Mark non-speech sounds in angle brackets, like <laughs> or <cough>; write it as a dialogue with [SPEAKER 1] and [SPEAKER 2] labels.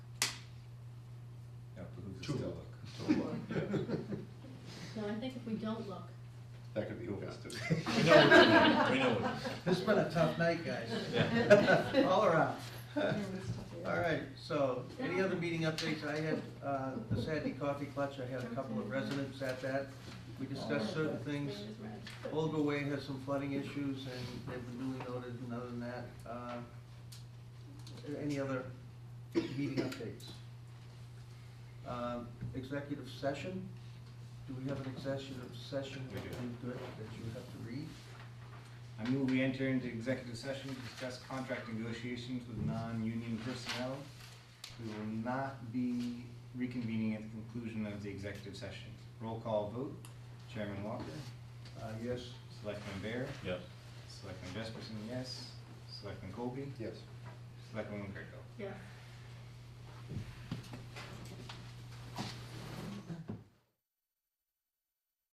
[SPEAKER 1] Just
[SPEAKER 2] Two.
[SPEAKER 1] don't look.
[SPEAKER 3] <laughs>
[SPEAKER 1] Don't look.
[SPEAKER 4] No, I think if we don't look.
[SPEAKER 1] That could be who wants to.
[SPEAKER 5] We know what you're doing. We know what
[SPEAKER 6] This has been a tough night, guys.
[SPEAKER 5] Yeah.
[SPEAKER 6] All around. All
[SPEAKER 7] All
[SPEAKER 6] right, so any other meeting updates? I had, uh, the Saturday coffee clutch, I had a couple of residents at that. We discussed certain things.
[SPEAKER 4] Red is red.
[SPEAKER 6] Olga Way has some flooding issues and they've been duly noted, and other than that, uh, any other meeting updates? Um, Executive session, do we have an executive session?
[SPEAKER 1] We do.
[SPEAKER 6] Good, that you have to read?
[SPEAKER 3] I move we enter into executive session to discuss contract negotiations with non-union personnel. We will not be reconvening at the conclusion of the executive session. Roll call vote, Chairman Walker,
[SPEAKER 6] Uh, yes?
[SPEAKER 3] Selectman Bear,
[SPEAKER 5] Yes.
[SPEAKER 3] Selectman Jesperson, yes, Selectman Colby,
[SPEAKER 1] Yes.
[SPEAKER 3] Selectman Winkerto.
[SPEAKER 4] Yeah.